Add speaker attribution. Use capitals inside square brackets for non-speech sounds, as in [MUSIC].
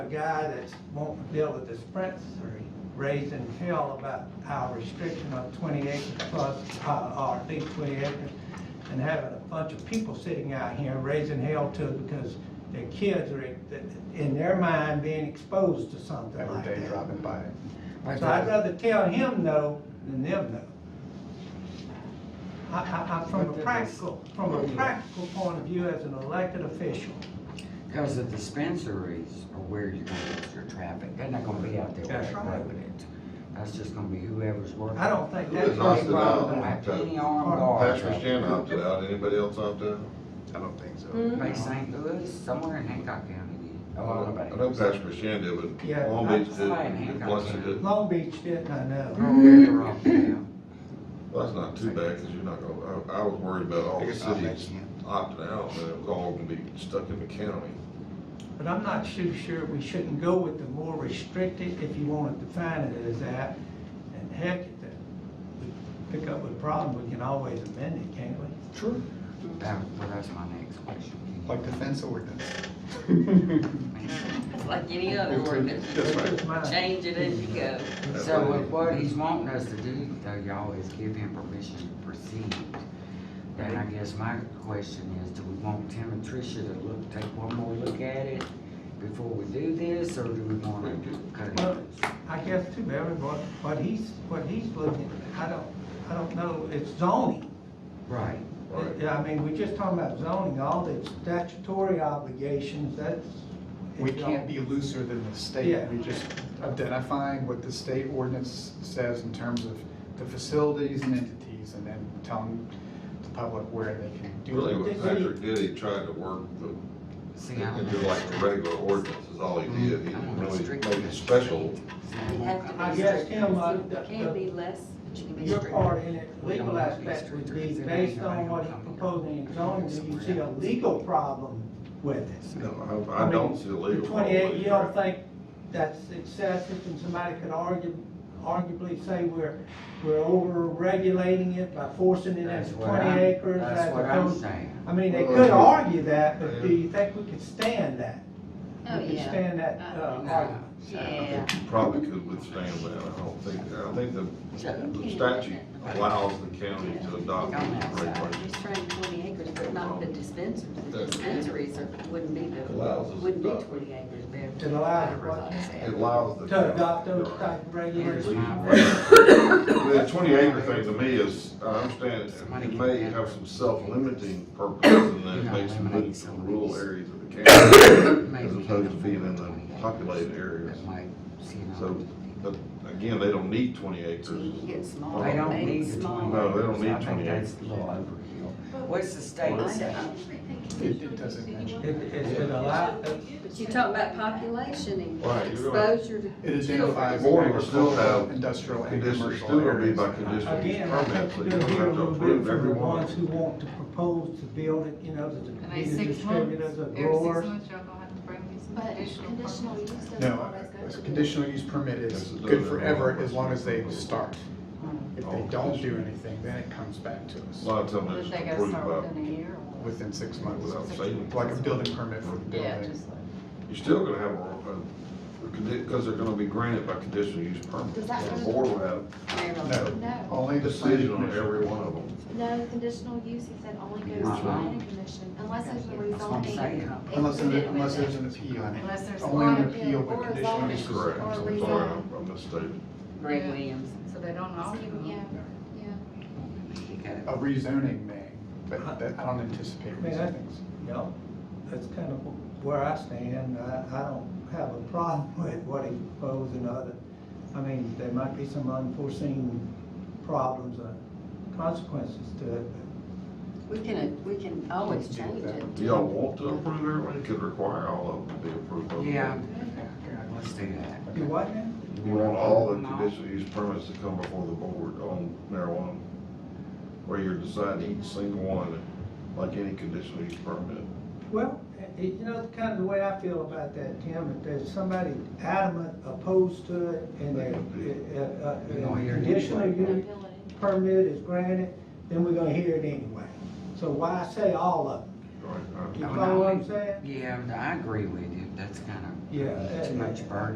Speaker 1: a guy that's wanting to deal with the Spencer raising hell about our restriction of twenty acres plus, uh, or at least twenty acres, and having a bunch of people sitting out here raising hell to it because their kids are, in their mind, being exposed to something
Speaker 2: every
Speaker 1: like
Speaker 2: day
Speaker 1: that.
Speaker 2: dropping by.
Speaker 1: So I'd rather tell him no than them no. I, I, I, from a practical, from a practical point of view as an elected official,
Speaker 3: Because the dispensaries are where you're gonna get your traffic, they're not gonna be out there
Speaker 1: That's
Speaker 3: right
Speaker 1: right.
Speaker 3: away with it. That's just gonna be whoever's working.
Speaker 1: I don't think
Speaker 4: Who
Speaker 1: that's.
Speaker 4: is Austin
Speaker 1: any problem.
Speaker 3: Don't have any armed guards.
Speaker 4: Pastor
Speaker 3: out
Speaker 4: Shannon
Speaker 3: there.
Speaker 4: opted out, anybody else opt out?
Speaker 2: I don't think so.
Speaker 1: Mm.
Speaker 3: Bay St. Louis, somewhere in Hancock County, did.
Speaker 4: I
Speaker 3: Oh,
Speaker 4: know-
Speaker 3: nobody.
Speaker 4: I know Pastor Shannon did,
Speaker 1: Yeah,
Speaker 4: but Long
Speaker 3: I'm
Speaker 4: Beach did,
Speaker 3: saying,
Speaker 4: and
Speaker 3: Hancock
Speaker 4: Biloxi
Speaker 3: County.
Speaker 4: did.
Speaker 1: Long Beach didn't, I know.
Speaker 3: Oh, yeah, they're off now.
Speaker 4: Well, that's not too bad, because you're not gonna, I, I was worried about all
Speaker 2: I
Speaker 4: the
Speaker 2: guess I'll
Speaker 4: cities
Speaker 2: make it.
Speaker 4: opting out, and it was all gonna be stuck in the county.
Speaker 1: But I'm not too sure we shouldn't go with the more restricted, if you want to define it as that. And heck, if that- we pick up with a problem, we can always amend it, can't we?
Speaker 2: True.
Speaker 3: That, well, that's my next question.
Speaker 2: Like the fence
Speaker 4: [LAUGHS]
Speaker 2: ordinance.
Speaker 5: It's like any other ordinance,
Speaker 2: That's right.
Speaker 1: Just mine.
Speaker 5: change it as you go.
Speaker 3: So with what he's wanting us to do, though, y'all, is give him permission to proceed. Then I guess my question is, do we want Tim and Tricia to look, take one more look at it before we do this, or do we wanna cut it?
Speaker 1: Well, I guess too, Barry, what, what he's, what he's looking, I don't, I don't know, it's zoning.
Speaker 3: Right,
Speaker 4: Right.
Speaker 1: Yeah, I mean, we're just talking about zoning, all the statutory obligations, that's.
Speaker 2: We can't be looser than the
Speaker 1: Yeah.
Speaker 2: state. We just identifying what the state ordinance says in terms of the facilities and entities and then telling the public where they can do
Speaker 4: Really,
Speaker 2: it.
Speaker 4: what Patrick did, he tried to work the
Speaker 3: see, I
Speaker 4: And
Speaker 3: don't. Mm,
Speaker 4: do like the regular ordinance is all he did, he didn't really make it special.
Speaker 5: You have to be
Speaker 1: I guess,
Speaker 5: strict.
Speaker 1: Tim, uh, the-
Speaker 5: You can't be less, but you can be
Speaker 1: Your
Speaker 5: strict.
Speaker 1: part in it, legal aspect would be based on what he's proposing in zoning, do you see a legal problem with it?
Speaker 4: No, I, I don't see the legal.
Speaker 1: The
Speaker 4: problem
Speaker 1: Twenty-eight, you don't
Speaker 4: with it.
Speaker 1: think that's excessive, and somebody could argue, arguably say we're, we're over-regulating it by forcing it
Speaker 3: That's
Speaker 1: into
Speaker 3: what I'm-
Speaker 1: twenty acres? as
Speaker 3: That's what I'm
Speaker 1: opposed-
Speaker 3: saying.
Speaker 1: I mean, they
Speaker 4: Well,
Speaker 1: could
Speaker 4: yeah.
Speaker 1: argue that, but do
Speaker 4: Yeah.
Speaker 1: you think we could stand that?
Speaker 5: Oh,
Speaker 1: We could
Speaker 5: yeah.
Speaker 1: stand that,
Speaker 5: Uh,
Speaker 1: uh,
Speaker 3: No.
Speaker 1: argument?
Speaker 5: Yeah.
Speaker 4: You Probably could withstand that, I don't think, I don't think the the statute allows the county to adopt these regulations.
Speaker 5: He's trying twenty acres, but not the dispensaries. The
Speaker 4: That's-
Speaker 5: dispensaries are- wouldn't be the,
Speaker 4: Allows us to
Speaker 5: wouldn't be
Speaker 4: adopt.
Speaker 5: twenty acres. They're-
Speaker 1: It allows it, what?
Speaker 4: It allows the.
Speaker 1: To adopt those
Speaker 4: Right.
Speaker 1: type of
Speaker 3: Here's
Speaker 1: regulations?
Speaker 3: my-
Speaker 4: The twenty acre thing to me is, I understand, it may have some self-limiting purpose, and then it makes it move from rural areas of the county, as opposed to being in the populated areas.
Speaker 3: That might, see, you know,
Speaker 4: So, but again, they don't need twenty acres.
Speaker 5: You get small,
Speaker 3: They don't
Speaker 5: made
Speaker 3: need the
Speaker 5: small.
Speaker 3: twenty.
Speaker 4: No, they don't need
Speaker 3: I think
Speaker 4: 20.
Speaker 3: That's a little overkill. What's the state say?
Speaker 2: It it doesn't mention.
Speaker 1: It, it it allows,
Speaker 5: But you talk about population
Speaker 4: Right,
Speaker 5: and
Speaker 4: you're right.
Speaker 5: exposure to.
Speaker 2: It
Speaker 5: children.
Speaker 2: identifies
Speaker 4: Or we'll still
Speaker 2: agricultural,
Speaker 4: have
Speaker 2: industrial, and
Speaker 4: Conditions
Speaker 2: commercial
Speaker 4: still gonna be
Speaker 2: areas.
Speaker 4: by conditional use
Speaker 1: again, I
Speaker 4: permit,
Speaker 1: think
Speaker 4: so
Speaker 1: you
Speaker 4: you
Speaker 1: do
Speaker 4: don't
Speaker 1: hear a
Speaker 4: have to
Speaker 1: little bit from
Speaker 4: approve
Speaker 1: the
Speaker 4: every one.
Speaker 1: ones who want to propose to build it, you know, the
Speaker 6: Every
Speaker 1: the
Speaker 6: six months,
Speaker 1: distributors, the
Speaker 6: every six
Speaker 1: growers.
Speaker 6: months, y'all gonna have to bring me some
Speaker 7: But
Speaker 6: additional.
Speaker 7: conditional use doesn't
Speaker 2: No,
Speaker 7: always go
Speaker 2: a
Speaker 7: to.
Speaker 2: conditional use permit is good forever as long as they start. If
Speaker 4: Oh.
Speaker 2: they don't do anything, then it comes back to
Speaker 4: A
Speaker 2: us
Speaker 4: lot of times they
Speaker 6: But they
Speaker 4: just
Speaker 6: gotta
Speaker 4: approve
Speaker 6: start
Speaker 4: by,
Speaker 6: within a year or what?
Speaker 2: within six months,
Speaker 4: without saying.
Speaker 2: like a building permit for the
Speaker 6: Yeah,
Speaker 2: building.
Speaker 6: just like.
Speaker 4: You're still gonna have a, because they're gonna be granted by conditional use permit.
Speaker 7: Does that-
Speaker 4: The board will have
Speaker 2: No,
Speaker 7: No,
Speaker 2: only
Speaker 4: a
Speaker 2: the planning
Speaker 4: decision on
Speaker 2: commission.
Speaker 4: every one of them.
Speaker 7: no, conditional use, he said, only goes to
Speaker 3: Uh-huh.
Speaker 7: planning commission, unless there's a
Speaker 3: That's what I'm saying.
Speaker 7: rezoning.
Speaker 2: Unless, there-
Speaker 7: included with
Speaker 2: unless
Speaker 7: it.
Speaker 2: there's an appeal.
Speaker 6: Unless there's
Speaker 2: Only an
Speaker 6: water
Speaker 2: appeal
Speaker 7: bill
Speaker 2: with
Speaker 7: or
Speaker 2: conditional
Speaker 7: zoning.
Speaker 2: use.
Speaker 4: That's correct.
Speaker 7: Or
Speaker 4: I'm sorry, I- I misstated.
Speaker 5: Greg Williams.
Speaker 6: So they don't all.
Speaker 7: Yeah, E yeah.
Speaker 3: You gotta-
Speaker 2: A rezoning may,
Speaker 4: Uh-huh.
Speaker 2: but that, I don't anticipate
Speaker 1: May I?
Speaker 2: rezonings.
Speaker 1: You know, that's kind of where I stand, I, I don't have a problem [LAUGHS] with what he proposed and other. I mean, there might be some unforeseen problems or consequences to it, but
Speaker 5: We can, we can always change it.
Speaker 4: Do y'all want to approve everyone? You could require all of them to be approved. by the
Speaker 3: Yeah,
Speaker 4: board.
Speaker 3: let's do that.
Speaker 1: You what now?
Speaker 4: You want all the conditional use permits to come before the board on marijuana? Where you're deciding each single one, like any conditional use permit?
Speaker 1: Well, it- it- you know, kind of the way I feel about that, Tim, if there's somebody adamant opposed to it and their, uh, uh,
Speaker 3: You're gonna
Speaker 1: and
Speaker 3: hear it
Speaker 1: conditional
Speaker 3: anyway.
Speaker 1: use permit is granted, then we're gonna hear it anyway. So why say all of them?
Speaker 4: Right, I-
Speaker 1: You
Speaker 3: Oh,
Speaker 1: follow what I'm
Speaker 3: no.
Speaker 1: saying?
Speaker 3: Yeah, I agree with you, that's kinda
Speaker 1: Yeah.
Speaker 3: Too much burden.